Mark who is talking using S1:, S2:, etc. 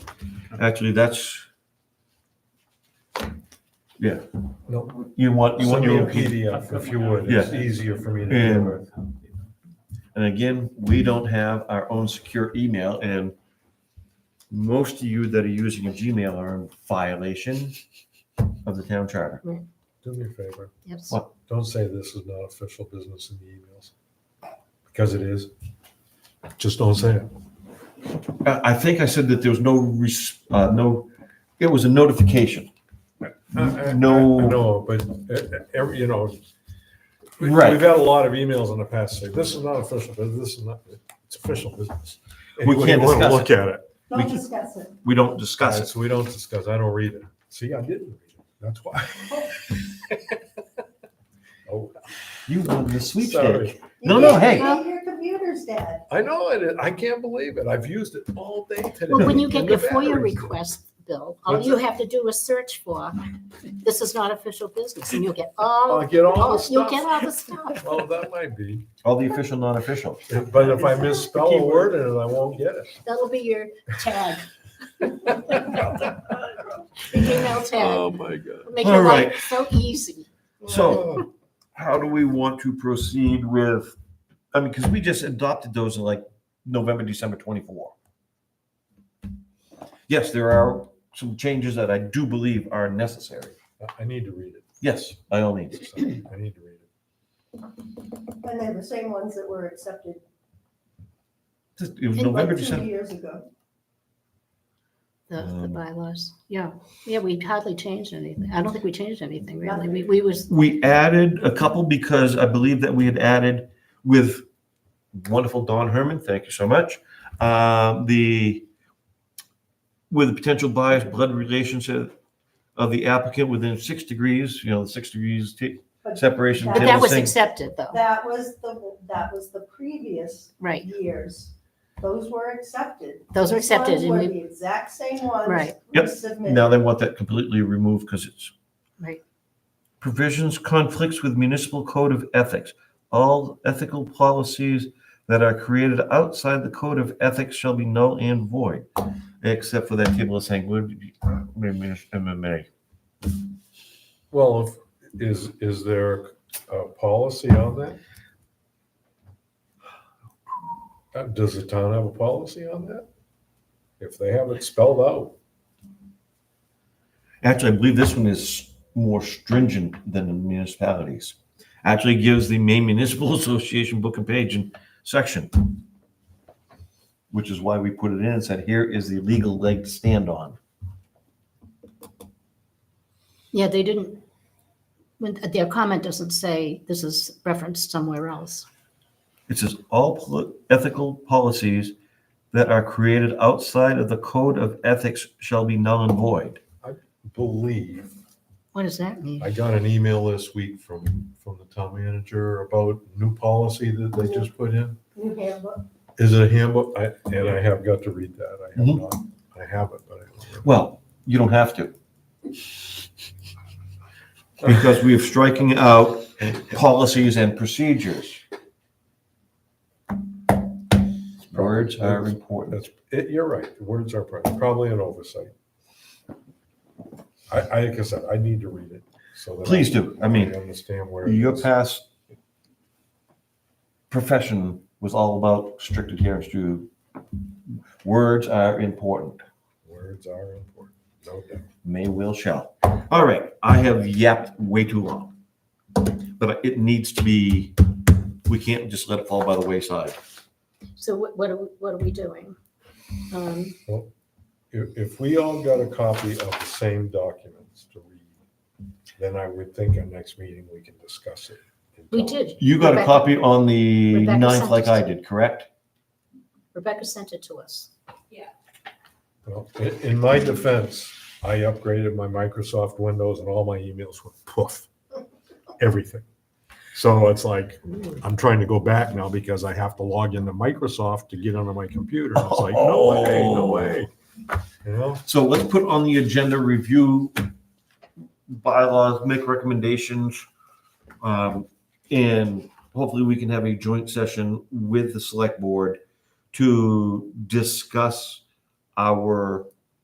S1: Actually, that's, yeah,
S2: No,
S1: you want, you want
S2: send me
S1: your
S2: a
S1: opinion.
S2: PDF if you would. It's easier for me to
S1: Yeah.
S2: deal with.
S1: And again, we don't have our own secure email and most of you that are using a Gmail are in violation of the town charter.
S2: Do me a favor.
S3: Yes.
S1: What?
S2: Don't say this is not official business in the emails, because it is. Just don't say it.
S1: I, I think I said that there was no, res- uh, no, it was a notification. Uh, No.
S2: No, but, uh, every- you know. we-
S1: Right.
S2: We've had a lot of emails in the past, say, this is not official, business. this is not, it's official business. And
S1: We
S2: you
S1: can't
S2: wanna
S1: discuss
S2: Look at it,
S1: We
S4: Don't
S1: can-
S4: discuss it.
S1: We don't discuss
S2: guys,
S1: it.
S2: so we don't discuss, I don't read it. See, I didn't read it, that's why. Oh,
S1: You won the sweepstake.
S2: sorry.
S1: No, no, hey.
S4: Now your computer's dead.
S2: I know it, I can't believe it, I've used it all day today.
S3: Well, when you get
S2: And
S3: your
S2: the
S3: FOIA
S2: batteries.
S3: request, Bill, all
S2: What's
S3: you have to do is search for, this is not official business, and you'll get all,
S2: I'll get Oh, all the
S3: all- oh, you'll
S2: stuff.
S3: get all the stuff.
S2: Well, that might be,
S1: All the official, non-official.
S2: but if I misspell a word in it, I won't get it.
S3: That'll be your tag. Your email tag,
S2: Oh, my God.
S3: make your
S1: All right.
S3: life so easy.
S1: So- How do we want to proceed with, I mean, because we just adopted those in like November, December 24. Yes, there are some changes that I do believe are necessary.
S2: I- I need to read it.
S1: Yes, by all means.
S2: So, I need to read it.
S4: And they're the same ones that were accepted
S1: Just- It was
S3: And
S1: November,
S4: like two
S1: December.
S4: years ago.
S3: The, the
S1: Um,
S3: bylaws, yeah, yeah, we hardly changed anything, I don't think we changed anything, really, we, we was,
S1: We added a couple because I believe that we had added with wonderful Don Herman, thank you so much. um, The, with a potential bias, blood relationship of the applicant within six degrees, you know, six degrees ta-
S4: But
S1: separation.
S4: But
S3: but
S1: table
S3: that was
S1: sink.
S3: accepted, though,
S4: That was the, that was the previous
S3: right,
S4: years. Those were accepted.
S3: those were
S4: These ones
S3: accepted, and
S4: were
S3: we,
S4: the exact same ones.
S3: Right.
S1: Yep.
S4: resubmitted.
S1: Now they want that completely removed because it's.
S3: Right.
S1: Provisions conflicts with municipal code of ethics. All ethical policies that are created outside the code of ethics shall be null and void. Except for that table of saying, would, MMA.
S2: Well, if, is, is there a policy on that? Uh, Does the town have a policy on that? If they have it spelled out,
S1: Actually, I believe this one is more stringent than the municipalities. Actually gives the Maine Municipal Association book and page and section. Which is why we put it in and said, here is the legal leg to stand on.
S3: yeah, they didn't, when, their comment doesn't say, this is referenced somewhere else.
S1: It says all poli- ethical policies that are created outside of the code of ethics shall be null and void.
S2: believe
S3: What does that mean?
S2: I got an email this week from, from the town manager about new policy that they just put in.
S4: New handbook.
S2: Is it a handbook? I, and I have got to read that. I have
S1: Mhm.
S2: not, I have it, but I don't remember.
S1: Well, you don't have to. Because we are striking out policies and procedures. Words are important.
S2: That's, it, you're right. The words are probably, probably an oversight. I, I, like I said, I need to read it so that.
S1: Please do. I mean,
S2: Understand where. it
S1: Your
S2: is.
S1: past profession was all about strict adherence to, words are important.
S2: Words are important, no doubt.
S1: May, will, shall. All right, I have yapped way too long. But it needs to be, we can't just let it fall by the wayside.
S3: So what, what are, we- what are we doing? Um,
S2: If, if we all got a copy of the same documents to read, then I would think our next meeting, we can discuss it. and
S3: We
S2: tell-
S3: did.
S1: You got a
S3: Rebecca-
S1: copy on the
S3: Rebecca
S1: ninth like I
S3: sent it.
S1: did, correct?
S3: Rebecca sent it to us.
S2: Well, i- in my defense, I upgraded my Microsoft Windows and all my emails were poof, everything. So it's like, I'm trying to go back now because I have to log into Microsoft to get onto my computer. It's like, no way, no way. You know,
S1: So let's put on the agenda, review bylaws, make recommendations. um, And hopefully we can have a joint session with the select board to discuss our